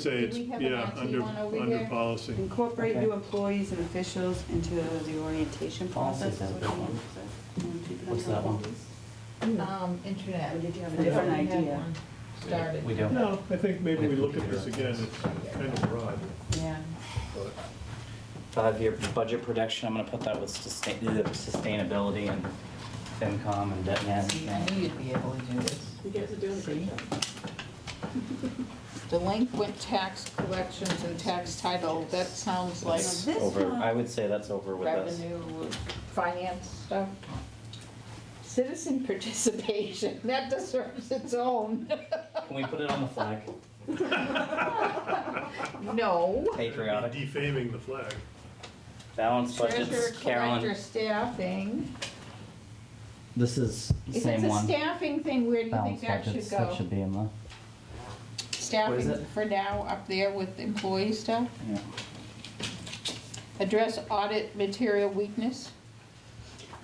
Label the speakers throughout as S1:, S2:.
S1: Say
S2: Did
S1: it's,
S2: we have an
S1: yeah,
S2: IT
S1: under,
S2: one over
S1: under
S2: here?
S1: policy.
S3: Incorporate
S4: Okay.
S3: new employees and officials into the orientation process.
S4: Policies, that one. What's that one?
S2: Um, internet.
S3: Or did you have a
S2: We
S3: different
S2: already had
S3: idea?
S2: one
S4: We
S2: Started.
S4: don't.
S1: No, I think maybe we look at this again, it's kind of broad,
S3: Yeah.
S1: but
S4: Five-year budget projection, I'm gonna put that with sustain, uh, sustainability and FinCom and debt
S2: See, I
S4: management.
S2: knew you'd be able to do this.
S5: You guys are doing a great
S2: See?
S5: job.
S2: Delinquent tax collections and tax title, that sounds like
S4: It's
S3: Now this
S4: over,
S3: one-
S4: I would say that's over with us.
S2: revenue, finance stuff. Citizen participation, that deserves its own.
S4: Can we put it on the flag?
S2: No.
S4: Patriotic.
S1: defaming the flag.
S4: Balanced
S2: Treasurer,
S4: budgets,
S2: collector,
S4: Carolyn,
S2: staffing.
S4: this is the
S2: If
S4: same
S2: it's a
S4: one.
S2: staffing thing, where do you think
S4: Balanced
S2: that
S4: budgets,
S2: should
S4: that
S2: go?
S4: should be in the, What is
S2: Staffing
S4: it?
S2: for now up there with employee stuff?
S4: yeah.
S2: Address audit material weakness?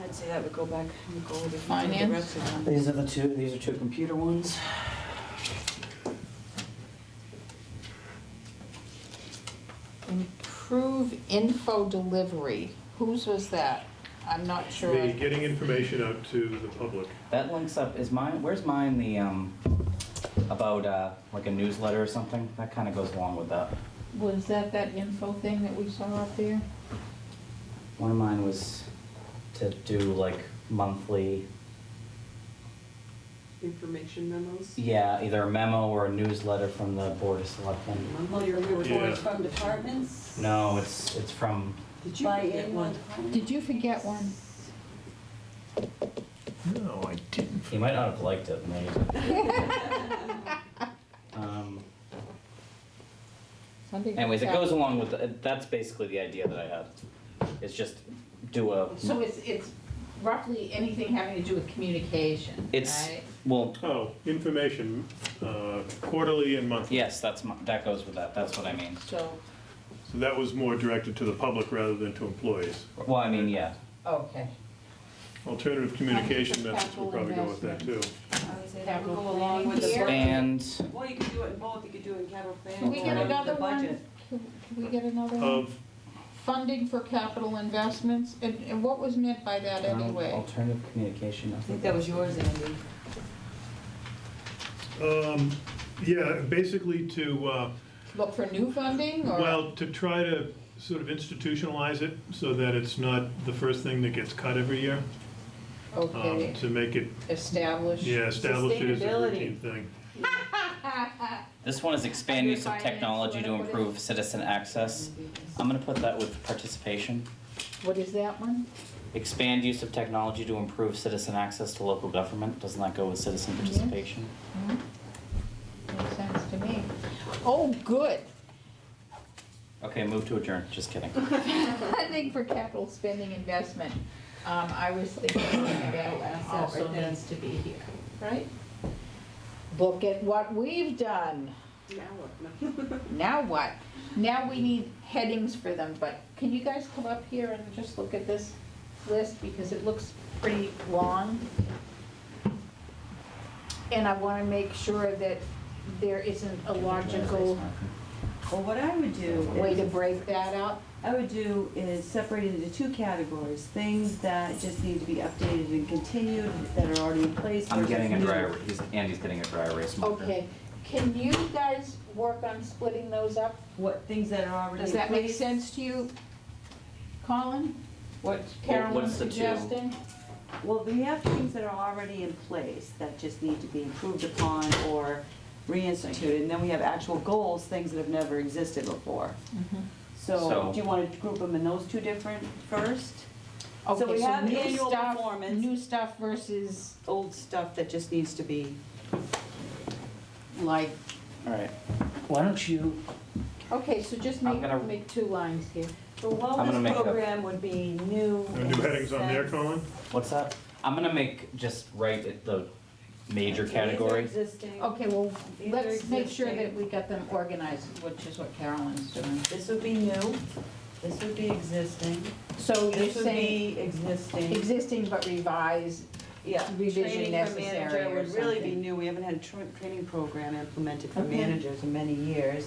S3: I'd say that would go back and go over the
S2: Finance.
S3: rest of them.
S4: These are the two, these are two computer ones.
S2: Improve info delivery. Whose was that? I'm not
S1: The
S2: sure.
S1: getting information out to the public.
S4: That links up, is mine, where's mine, the, um, about, uh, like a newsletter or something? That kinda goes along with that.
S2: Was that that info thing that we saw up there?
S4: One of mine was to do like monthly,
S5: Information memos.
S4: yeah, either a memo or a newsletter from the Board of Selectmen.
S3: Well, your
S1: Yeah.
S3: reports from departments?
S4: No, it's, it's from,
S5: Did you
S3: By
S5: get one?
S3: anyone?
S2: Did you forget one?
S1: No, I didn't.
S4: you might not have liked it, maybe. Um,
S2: Something
S4: Anyways, it
S2: like that.
S4: goes along with, the- that's basically the idea that I had. It's just do a,
S2: So it's, it's roughly anything having to do with communication,
S4: it's,
S2: right?
S4: well,
S1: Oh, information, uh, quarterly and monthly.
S4: yes, that's, my- that goes with that, that's what I mean.
S2: So,
S1: So that was more directed to the public rather than to employees.
S4: Well, I mean, yeah,
S2: okay.
S1: Alternative communication
S2: Capital
S1: methods will probably go with that too.
S5: I would say that would
S2: Capital
S5: go along with the
S2: planning
S5: work.
S4: and
S5: Well, you could do it in both, you could do it in capital planning.
S2: Can we get
S5: or the
S2: another one?
S5: budget.
S2: Can can we get another one?
S1: Of,
S2: Funding for capital investments, and, and what was meant by that
S4: Um,
S2: anyway?
S4: alternative communication, I
S3: I think
S4: think.
S3: that was yours, Andy.
S1: um, yeah, basically to, uh,
S2: Look for new funding, or?
S1: Well, to try to sort of institutionalize it so that it's not the first thing that gets cut every year, um,
S2: Okay,
S1: to make it,
S2: establish.
S1: um, yeah, established as a
S5: Sustainability.
S1: routine thing.
S4: This one is expand use of
S2: Under finance,
S4: technology to
S2: what- what is-
S4: improve citizen access. I'm gonna put that with participation.
S2: What is that one?
S4: Expand use of technology to improve citizen access to local government, doesn't that go with citizen
S2: Mm-hmm.
S4: participation?
S2: Hmm? Makes sense to me. Oh, good.
S4: Okay, move to adjourn, just kidding.
S2: I think for capital spending investment, um, I was thinking that also needs to be here, right? Look at what we've done.
S5: Now what?
S2: Now what? Now we need headings for them, but can you guys come up here and just look at this list, because it looks pretty long? And I wanna make sure that there isn't a logical
S3: Well, what I would do
S2: way to
S3: is,
S2: break that up.
S3: I would do is separate it into two categories, things that just need to be updated and continued, that are already in place.
S4: I'm
S3: versus
S4: getting a
S3: new.
S4: dry, er- he's, Andy's getting a dry erase marker.
S2: Okay, can you guys work on splitting those up?
S3: What, things that are already in place?
S2: Does that make sense to you, Colin? What
S4: Well,
S2: Carolyn
S4: what's the two?
S2: suggesting?
S3: Well, we have things that are already in place that just need to be improved upon or reinstituted, and then we have actual goals, things that have never existed before. So,
S4: So-
S3: do you wanna group them in those two different first?
S2: Okay,
S3: So we have
S2: new
S3: annual
S2: stuff-
S3: performance.
S2: New stuff versus
S3: Old stuff that just needs to be,
S2: like
S4: Alright, why don't you,
S2: Okay, so just
S4: I'm
S2: make,
S4: gonna-
S2: make two lines here.
S3: the
S4: I'm gonna
S3: wellness
S4: make a-
S3: program would be new.
S1: Wanna do headings on there,
S3: in a sense.
S1: Colin?
S4: what's that? I'm gonna make, just write it the major
S3: These are
S4: category.
S3: Existing,
S2: Okay, well,
S3: These are
S2: let's make sure that
S3: existing.
S2: we got them organized, which is what Carolyn's doing.
S3: this would be new, this would be existing,
S2: So you're
S3: this would
S2: saying
S3: be existing,
S2: existing but revised,
S3: yeah.
S2: revision
S3: Training for
S2: necessary
S3: manager
S2: or
S3: would really be
S2: something.
S3: new, we haven't had a tra- training program implemented for
S2: Okay.
S3: managers in many years.